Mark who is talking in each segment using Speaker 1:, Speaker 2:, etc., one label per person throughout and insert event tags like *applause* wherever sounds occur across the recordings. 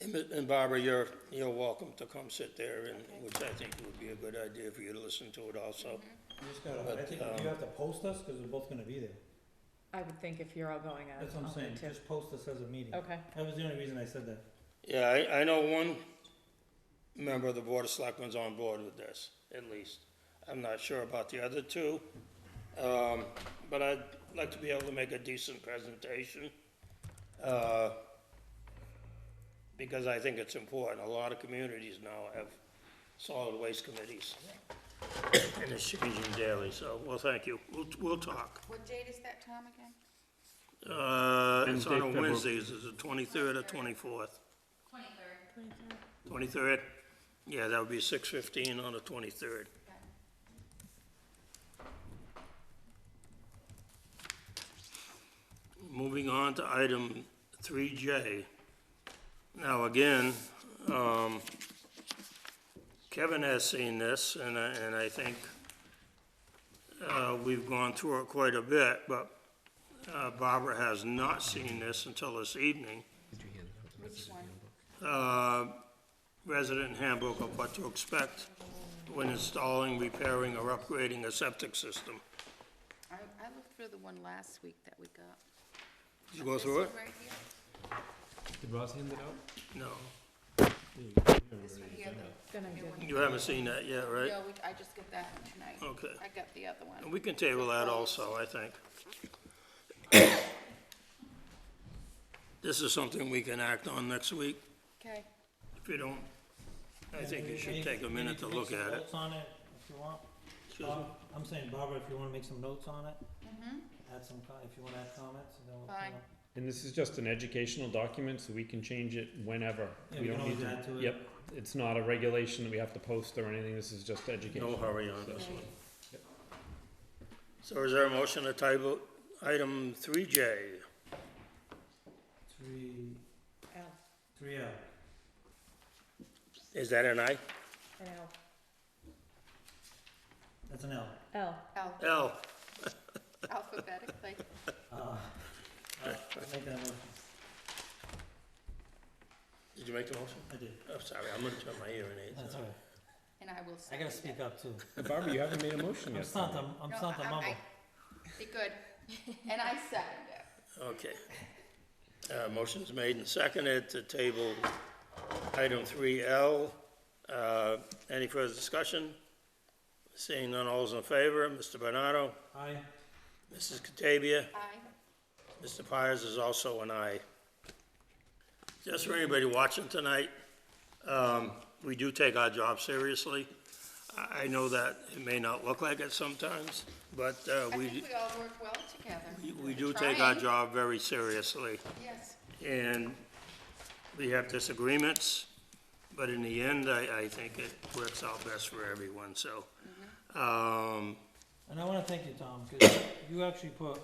Speaker 1: And Mi- And Barbara, you're, you're welcome to come sit there, and, which I think would be a good idea for you to listen to it also.
Speaker 2: You just gotta, I
Speaker 1: But,
Speaker 2: think,
Speaker 1: um,
Speaker 2: you have to post us, cause we're both gonna be there,
Speaker 3: I would think if you're all going out.
Speaker 2: that's what I'm
Speaker 3: I'll go
Speaker 2: saying,
Speaker 3: too.
Speaker 2: just post us as a meeting.
Speaker 3: Okay,
Speaker 2: That was the only reason I said that.
Speaker 1: Yeah, I, I know one member of the Board of Selectmen's on board with this, at least. I'm not sure about the other two, um, but I'd like to be able to make a decent presentation. uh, Because I think it's important. A lot of communities now have solid waste committees. And it's changing daily, so, well, thank you. We'll, we'll talk.
Speaker 4: What date is that, Tom, again?
Speaker 1: Uh, it's
Speaker 5: Wednesday,
Speaker 1: on a
Speaker 5: February-
Speaker 1: Wednesday, is it the twenty-third or twenty-fourth?
Speaker 4: Twenty-third.
Speaker 1: Twenty-third? Yeah, that would be six fifteen on the twenty-third. Moving on to item three J. Now, again, um, Kevin has seen this, and I, and I think, uh, we've gone through it quite a bit, but uh, Barbara has not seen this until this evening.
Speaker 4: Which one?
Speaker 1: Uh, resident handbook of what to expect when installing, repairing, or upgrading a septic system.
Speaker 4: I, I looked through the one last week that we got.
Speaker 1: Did you go
Speaker 4: This
Speaker 1: through it?
Speaker 4: one right here?
Speaker 5: Did Ross hand it out?
Speaker 1: No.
Speaker 4: This one here, the
Speaker 3: then I
Speaker 4: new
Speaker 3: did.
Speaker 4: one.
Speaker 1: You haven't seen that yet, right? Oh.
Speaker 4: No, we- I just got that one tonight.
Speaker 1: Okay.
Speaker 4: I got the other
Speaker 1: And
Speaker 4: one.
Speaker 1: we can table that also, I think. This is something we can act on next week.
Speaker 4: Okay,
Speaker 1: If you don't, I think you
Speaker 2: Any-
Speaker 1: should take a
Speaker 2: any-
Speaker 1: minute to
Speaker 2: make
Speaker 1: look
Speaker 2: some
Speaker 1: at it.
Speaker 2: Notes on it, if you want.
Speaker 1: Excuse me?
Speaker 2: Bob, I'm saying, Barbara, if you wanna make some notes on it.
Speaker 4: Mm-hmm.
Speaker 2: Add some, co- if you wanna add comments, and then we'll.
Speaker 4: Fine.
Speaker 2: kinda-
Speaker 5: And this is just an educational document, so we can change it whenever.
Speaker 2: Yeah,
Speaker 5: We
Speaker 2: we can
Speaker 5: don't need
Speaker 2: always
Speaker 5: to.
Speaker 2: add to it.
Speaker 5: Yep, it's not a regulation that we have to post or anything, this is just
Speaker 1: No
Speaker 5: education.
Speaker 1: hurry on this one. So is there a motion to table item three J?
Speaker 2: Three,
Speaker 3: L,
Speaker 2: three L.
Speaker 1: Is that an aye?
Speaker 3: an L,
Speaker 2: That's an L.
Speaker 3: L.
Speaker 4: al-
Speaker 1: L,
Speaker 4: alphabetically.
Speaker 2: Uh, uh, *laughs* I'll make that motion.
Speaker 1: did you make the motion?
Speaker 2: I did.
Speaker 1: I'm Oh, sorry, I'm gonna turn my ear in
Speaker 2: That's
Speaker 1: it.
Speaker 2: all right.
Speaker 4: And I will
Speaker 2: I
Speaker 4: second
Speaker 2: gotta
Speaker 4: it.
Speaker 2: speak up too.
Speaker 5: Barbara, you haven't made a motion
Speaker 2: I'm
Speaker 5: yet.
Speaker 2: starting, to- I'm
Speaker 4: No,
Speaker 2: starting to
Speaker 4: I- I-
Speaker 2: mumble.
Speaker 4: Be good. And I second it.
Speaker 1: Okay. Uh, motion's made and seconded to table item three L. Uh, any further discussion? Seeing none, all's in favor, Mr. Bernardo,
Speaker 2: Aye.
Speaker 1: Mrs. Catavia,
Speaker 4: Aye.
Speaker 1: Mr. Pires is also an aye. Just for anybody watching tonight, um, we do take our job seriously. I, I know that it may not look like it sometimes, but, uh,
Speaker 4: I
Speaker 1: we.
Speaker 4: think we all work well together.
Speaker 1: We do take our
Speaker 4: Trying.
Speaker 1: job very seriously,
Speaker 4: Yes,
Speaker 1: and we have disagreements, but in the end, I, I think it works out best for everyone, so. Um,
Speaker 2: And I wanna thank you, Tom,
Speaker 4: *coughs*
Speaker 2: cause you actually put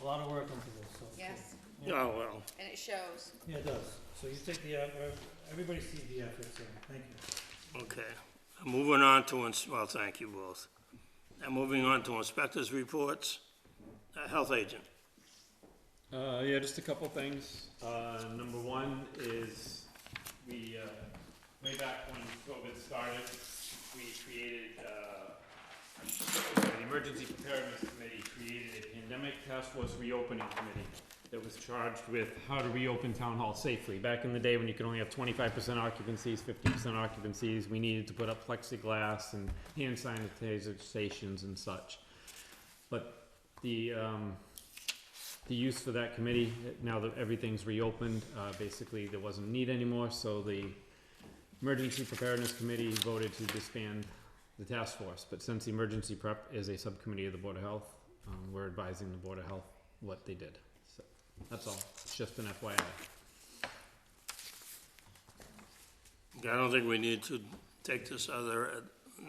Speaker 2: a lot of work into this, so.
Speaker 4: yes,
Speaker 1: oh, well,
Speaker 4: and it shows.
Speaker 2: Yeah, it does. So you take the, effort- everybody sees the effort, so thank you.
Speaker 1: okay. Moving on to, ins- well, thank you both. Now, moving on to inspectors' reports, Uh, health agent.
Speaker 5: Uh, yeah, just a couple things. Uh, number one is we, uh, way back when COVID started, we created, uh, the Emergency Preparedness Committee created a pandemic task force reopening committee that was charged with how to reopen town hall safely. Back in the day when you could only have twenty-five percent occupancies, fifty percent occupancies, we needed to put up plexiglass and hand sanitizer stations and such. But the, um, the use for that committee, now that everything's reopened, uh, basically there wasn't need anymore, so the Emergency Preparedness Committee voted to disband the task force, but since the Emergency Prep is a subcommittee of the Board of Health, um, we're advising the Board of Health what they did, so, that's all, it's just an FYI.
Speaker 1: I don't think we need to take this other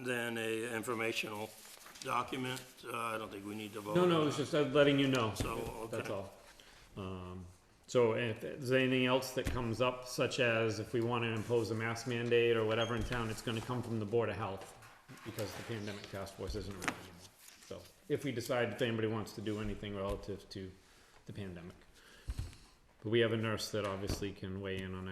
Speaker 1: than a informational document, Uh, I don't think we need to vote.
Speaker 5: No,
Speaker 1: on
Speaker 5: no,
Speaker 1: it.
Speaker 5: it's just uh, letting you know.
Speaker 1: So,
Speaker 5: That's
Speaker 1: okay.
Speaker 5: all. Um, so if there's anything else that comes up, such as if we wanna impose a mask mandate or whatever in town, it's gonna come from the Board of Health because the pandemic task force isn't around anymore. So if we decide if anybody wants to do anything relative to the pandemic. But we have a nurse that obviously can weigh in on